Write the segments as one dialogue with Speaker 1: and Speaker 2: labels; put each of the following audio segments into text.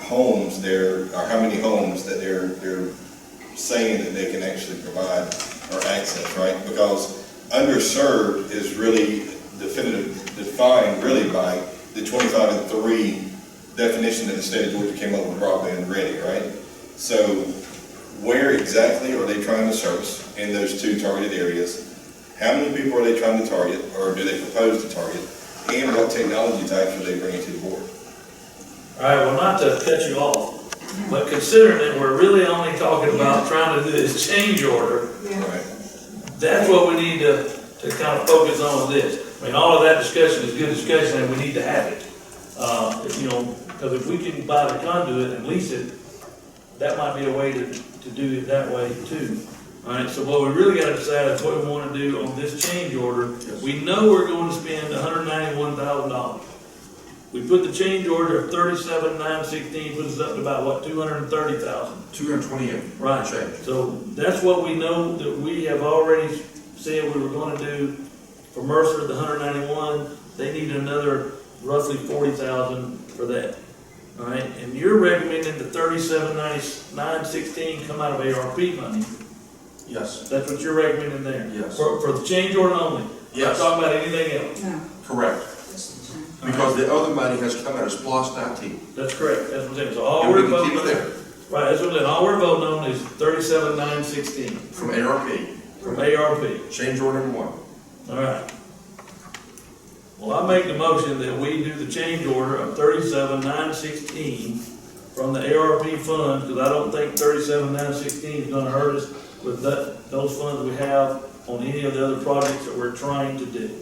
Speaker 1: homes there, or how many homes that they're, they're saying that they can actually provide or access, right? Because underserved is really definitive, defined really by the twenty-five and three definition that the state of Georgia came up with broadband ready, right? So where exactly are they trying to service in those two targeted areas? How many people are they trying to target, or do they propose to target? And what technology types are they bringing to the board?
Speaker 2: All right, well, not to cut you off, but considering that we're really only talking about trying to do this change order,
Speaker 1: Right.
Speaker 2: that's what we need to, to kind of focus on with this. I mean, all of that discussion is good discussion, and we need to have it. Uh, if, you know, because if we can buy the conduit and lease it, that might be a way to, to do it that way too. All right, so what we really gotta decide is what we wanna do on this change order. We know we're going to spend hundred ninety-one thousand dollars. We put the change order of thirty-seven, nine sixteen, puts us up to about, what, two hundred and thirty thousand?
Speaker 3: Two hundred twenty-eight.
Speaker 2: Right,
Speaker 3: Change.
Speaker 2: so that's what we know that we have already said we were gonna do for Mercer, the hundred ninety-one, they need another roughly forty thousand for that. All right, and you're recommending the thirty-seven nine sixteen come out of ARP money,
Speaker 3: Yes,
Speaker 2: that's what you're recommending there?
Speaker 3: Yes.
Speaker 2: For, for the change order only?
Speaker 3: Yes.
Speaker 2: Not talking about anything else,
Speaker 4: No,
Speaker 3: correct.
Speaker 4: that's the change.
Speaker 3: Because the other money has come out of SPOS nineteen.
Speaker 2: that's correct, that's what I'm saying, so all
Speaker 3: And we
Speaker 2: Oh, we're
Speaker 3: can
Speaker 2: voting
Speaker 3: keep it
Speaker 2: on.
Speaker 3: there
Speaker 2: Right, that's what I'm saying, all we're voting on is thirty-seven nine sixteen
Speaker 3: from ARP.
Speaker 2: from ARP.
Speaker 3: Change order number one.
Speaker 2: All right. Well, I make the motion that we do the change order of thirty-seven nine sixteen from the ARP fund, because I don't think thirty-seven nine sixteen is gonna hurt us with that, those funds we have on any of the other projects that we're trying to do.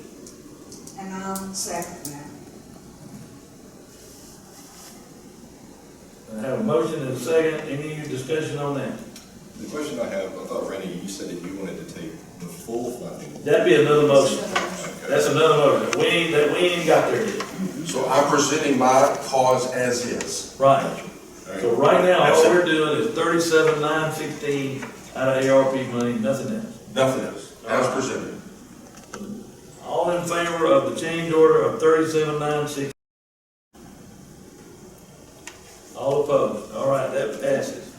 Speaker 4: And I'll second that.
Speaker 2: I have a motion and a second, any discussion on that?
Speaker 1: The question I have, I thought Randy, you said that you wanted to take the full funding.
Speaker 2: That'd be another motion,
Speaker 1: Okay.
Speaker 2: that's another motion, we ain't, that, we ain't got there yet.
Speaker 3: So I'm presenting my cause as is.
Speaker 2: Right.
Speaker 1: All right.
Speaker 2: So right now, all we're doing is thirty-seven nine sixteen out of ARP money, nothing else.
Speaker 3: Nothing else. As presented.
Speaker 2: All in favor of the change order of thirty-seven nine six? All opposed, all right, that passes.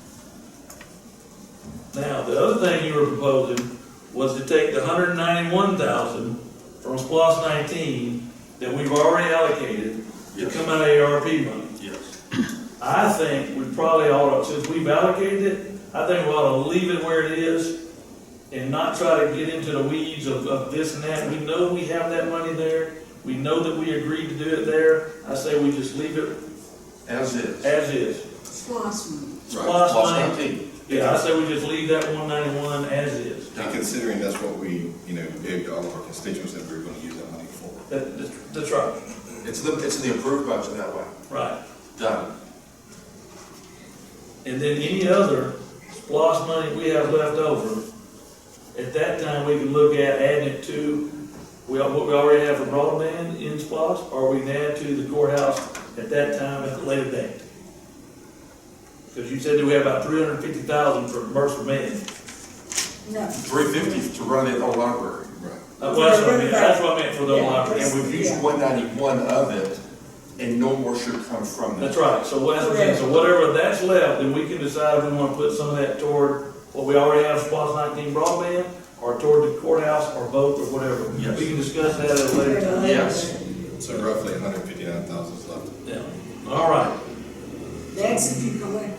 Speaker 2: Now, the other thing you were proposing was to take the hundred ninety-one thousand from SPOS nineteen that we've already allocated to
Speaker 3: Yes.
Speaker 2: come out of ARP money.
Speaker 3: Yes.
Speaker 2: I think we probably ought to, since we've allocated it, I think we ought to leave it where it is and not try to get into the weeds of, of this and that. We know we have that money there. We know that we agreed to do it there. I say we just leave it
Speaker 3: As is.
Speaker 2: as is.
Speaker 4: Splosh money.
Speaker 3: Right.
Speaker 2: Plus
Speaker 3: SPOS
Speaker 2: money.
Speaker 3: 19.
Speaker 2: Yeah, I say we just leave that one ninety-one as is.
Speaker 1: And considering that's what we, you know, gave to all of our constituents that we were gonna use that money for.
Speaker 2: That, that's- that's right,
Speaker 3: It's the, it's the approved budget that way.
Speaker 2: right.
Speaker 3: Done.
Speaker 2: And then any other SPOS money we have left over, at that time, we can look at adding it to, we, what we already have for broadband in SPOS, or we can add to the courthouse at that time at a later date. Because you said that we have about three hundred and fifty thousand for Mercer Med.
Speaker 4: No.
Speaker 3: Three fifty to run the old library.
Speaker 1: Right.
Speaker 2: Uh, Well, that's what I meant, that's what I meant for the library.
Speaker 3: And we've used one ninety-one of it and no more should come from
Speaker 2: That's
Speaker 3: that.
Speaker 2: right, so what, that's what I'm saying. so whatever that's left, then we can decide if we wanna put some of that toward what we already have, SPOS nineteen broadband, or toward the courthouse, or both, or whatever.
Speaker 3: Yes.
Speaker 2: We can discuss that at a later time.
Speaker 3: Yes.
Speaker 1: So roughly hundred fifty-nine thousand is left.
Speaker 2: Yeah, all right.
Speaker 4: That's if you collect,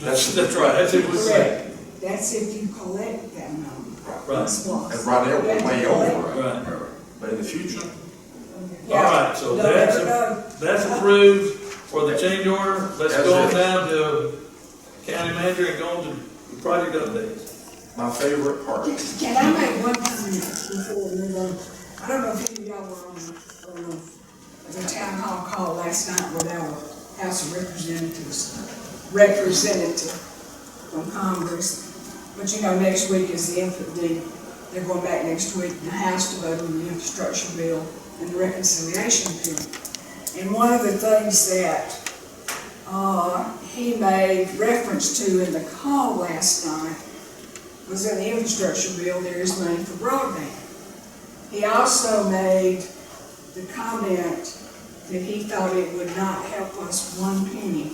Speaker 3: That's-
Speaker 2: That's right, that's it, we say.
Speaker 4: correct. That's if you collect that number.
Speaker 2: Right,
Speaker 4: Splosh.
Speaker 3: And right now, we're way over it.
Speaker 2: right.
Speaker 3: But in the future,
Speaker 2: All right, so
Speaker 4: No,
Speaker 2: that's,
Speaker 4: no, no.
Speaker 2: that's approved for the change order. Let's
Speaker 3: That's
Speaker 2: go on
Speaker 3: it.
Speaker 2: down to county manager and go on to project updates.
Speaker 3: my favorite part.
Speaker 4: Can I make one comment before we move on? I don't know if any of y'all were on, on the- the town hall call last night with our House of Representatives, representative from Congress. But you know, next week is the FD, they're going back next week, in the House to vote on the infrastructure bill and the reconciliation bill. And one of the things that, uh, he made reference to in the call last night was in the infrastructure bill, there is money for broadband. He also made the comment that he thought it would not help us one penny